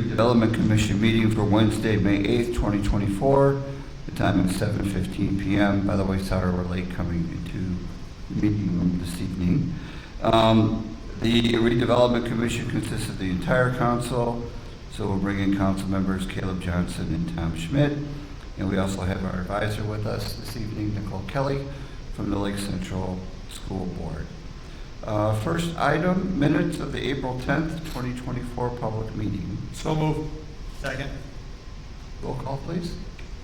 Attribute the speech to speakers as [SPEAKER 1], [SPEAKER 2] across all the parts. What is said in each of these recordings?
[SPEAKER 1] Development Commission meeting for Wednesday, May 8th, 2024. The time is 7:15 PM. By the way, sorry we're late coming into the meeting room this evening. Um, The redevelopment commission consists of the entire council, so we'll bring in council members Caleb Johnson and Tom Schmidt. And we also have our advisor with us this evening, Nicole Kelly, from the Lake Central School Board. Uh, First item, minutes of the April 10th, 2024 public meeting.
[SPEAKER 2] So moved. Second.
[SPEAKER 1] Roll call, please.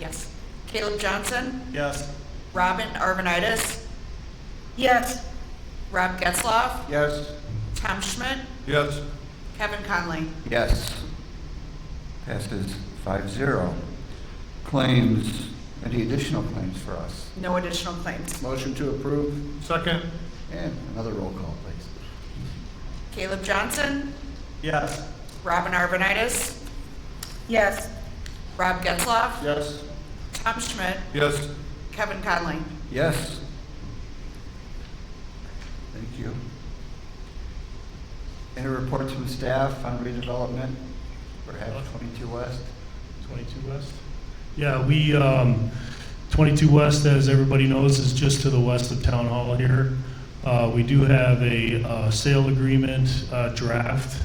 [SPEAKER 3] Yes. Caleb Johnson,
[SPEAKER 2] Yes.
[SPEAKER 3] Robin Arvanitis. Yes. Rob Getzloff,
[SPEAKER 2] Yes.
[SPEAKER 3] Tom Schmidt,
[SPEAKER 2] Yes.
[SPEAKER 3] Kevin Conley.
[SPEAKER 1] Yes. Passes 5-0. Claims, any additional claims for us?
[SPEAKER 3] No additional claims.
[SPEAKER 1] Motion to approve.
[SPEAKER 2] Second.
[SPEAKER 1] And another roll call, please.
[SPEAKER 3] Caleb Johnson,
[SPEAKER 2] Yes.
[SPEAKER 3] Robin Arvanitis. Yes. Rob Getzloff,
[SPEAKER 2] Yes.
[SPEAKER 3] Tom Schmidt,
[SPEAKER 2] Yes.
[SPEAKER 3] Kevin Conley.
[SPEAKER 1] Yes. Thank you. Any reports from staff on redevelopment, perhaps 22 West?
[SPEAKER 4] 22 West? Yeah, we, um, 22 West, as everybody knows, is just to the west of Town Hall here. Uh, We do have a uh, sale agreement uh, draft,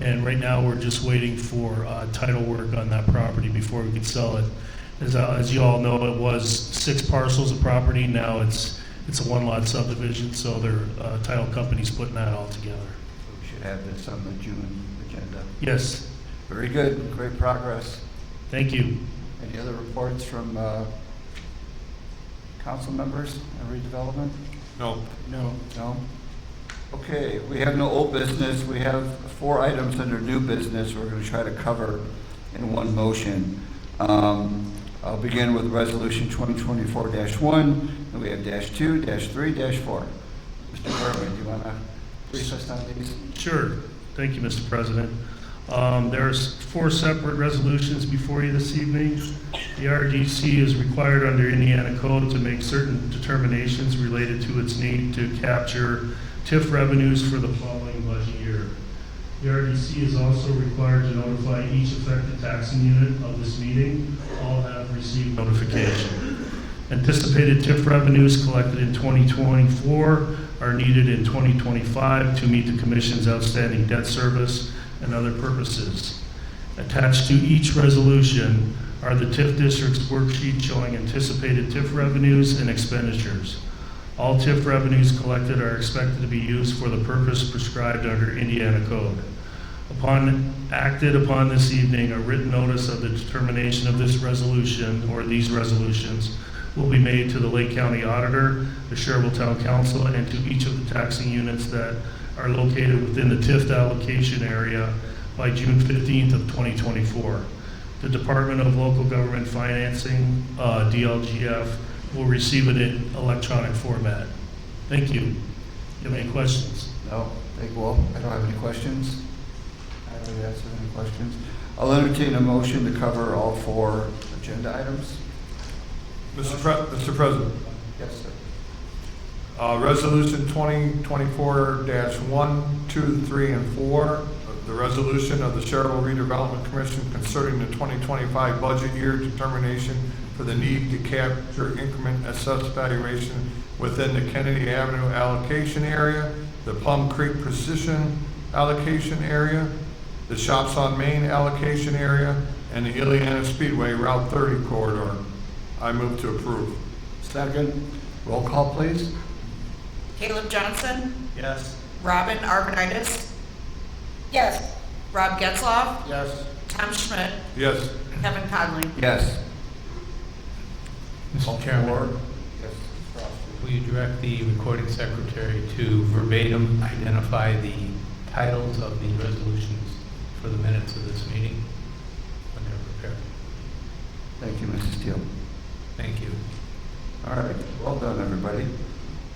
[SPEAKER 4] and right now, we're just waiting for uh, title work on that property before we could sell it. As uh, as you all know, it was six parcels of property, now it's, it's a one-lot subdivision, so their uh, title company's putting that all together.
[SPEAKER 1] So We should have this on the June agenda.
[SPEAKER 4] Yes,
[SPEAKER 1] Very good, great progress.
[SPEAKER 4] thank you.
[SPEAKER 1] Any other reports from uh, council members on redevelopment?
[SPEAKER 2] No.
[SPEAKER 1] No. No? Okay, we have no old business, we have four items under new business we're going to try to cover in one motion. Um, I'll begin with Resolution 2024-1, and we have dash two, dash three, dash four. Mr. Berman, do you want to brief us on these?
[SPEAKER 4] Sure. Thank you, Mr. President. Um, There's four separate resolutions before you this evening. The RDC is required under Indiana code to make certain determinations related to its need to capture TIF revenues for the following budget year. The RDC is also required to notify each affected taxing unit of this meeting. All have received notification. Anticipated TIF revenues collected in 2024 are needed in 2025 to meet the commission's outstanding debt service and other purposes. Attached to each resolution are the TIF district's worksheet showing anticipated TIF revenues and expenditures. All TIF revenues collected are expected to be used for the purpose prescribed under Indiana code. Upon, acted upon this evening, a written notice of the determination of this resolution or these resolutions will be made to the Lake County Auditor, the Sherwood Town Council, and to each of the taxing units that are located within the TIF allocation area by June 15th of 2024. The Department of Local Government Financing, uh, DLGF, will receive it in electronic format. Thank you. You have any questions?
[SPEAKER 1] No, they will. I don't have any questions. I don't have any questions. I'll entertain a motion to cover all four agenda items.
[SPEAKER 2] Mr. Pre- Mr. President,
[SPEAKER 1] Yes, sir.
[SPEAKER 2] uh, resolution twenty twenty-four dash one, two, three, and four. The resolution of the Sherrill Redevelopment Commission concerning the twenty twenty-five budget year determination for the need to capture increment assessed valuation within the Kennedy Avenue allocation area, the Plum Creek Precision allocation area, the Shops on Main allocation area, and the Ileana Speedway Route thirty corridor. I move to approve.
[SPEAKER 1] Second, roll call, please.
[SPEAKER 3] Caleb Johnson,
[SPEAKER 2] Yes.
[SPEAKER 3] Robin Arvanitis. Yes. Rob Getzloff,
[SPEAKER 2] Yes.
[SPEAKER 3] Tom Schmidt,
[SPEAKER 2] Yes.
[SPEAKER 3] Kevin Conley.
[SPEAKER 1] Yes.
[SPEAKER 5] Mr. Chairman,
[SPEAKER 1] Yes.
[SPEAKER 5] will you direct the recording secretary to verbatim identify the titles of the resolutions for the minutes of this meeting when they're prepared?
[SPEAKER 1] Thank you, Mrs. Steele.
[SPEAKER 5] Thank you.
[SPEAKER 1] All right, well done, everybody.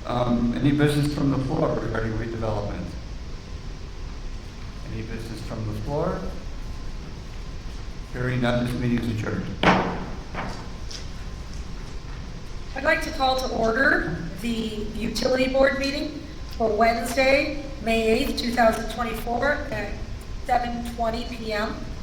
[SPEAKER 1] Um, Any business from the floor regarding redevelopment? Any business from the floor? Hearing none, this meeting is adjourned.
[SPEAKER 6] I'd like to call to order the utility board meeting for Wednesday, May 8th, 2024, at 7:20 PM.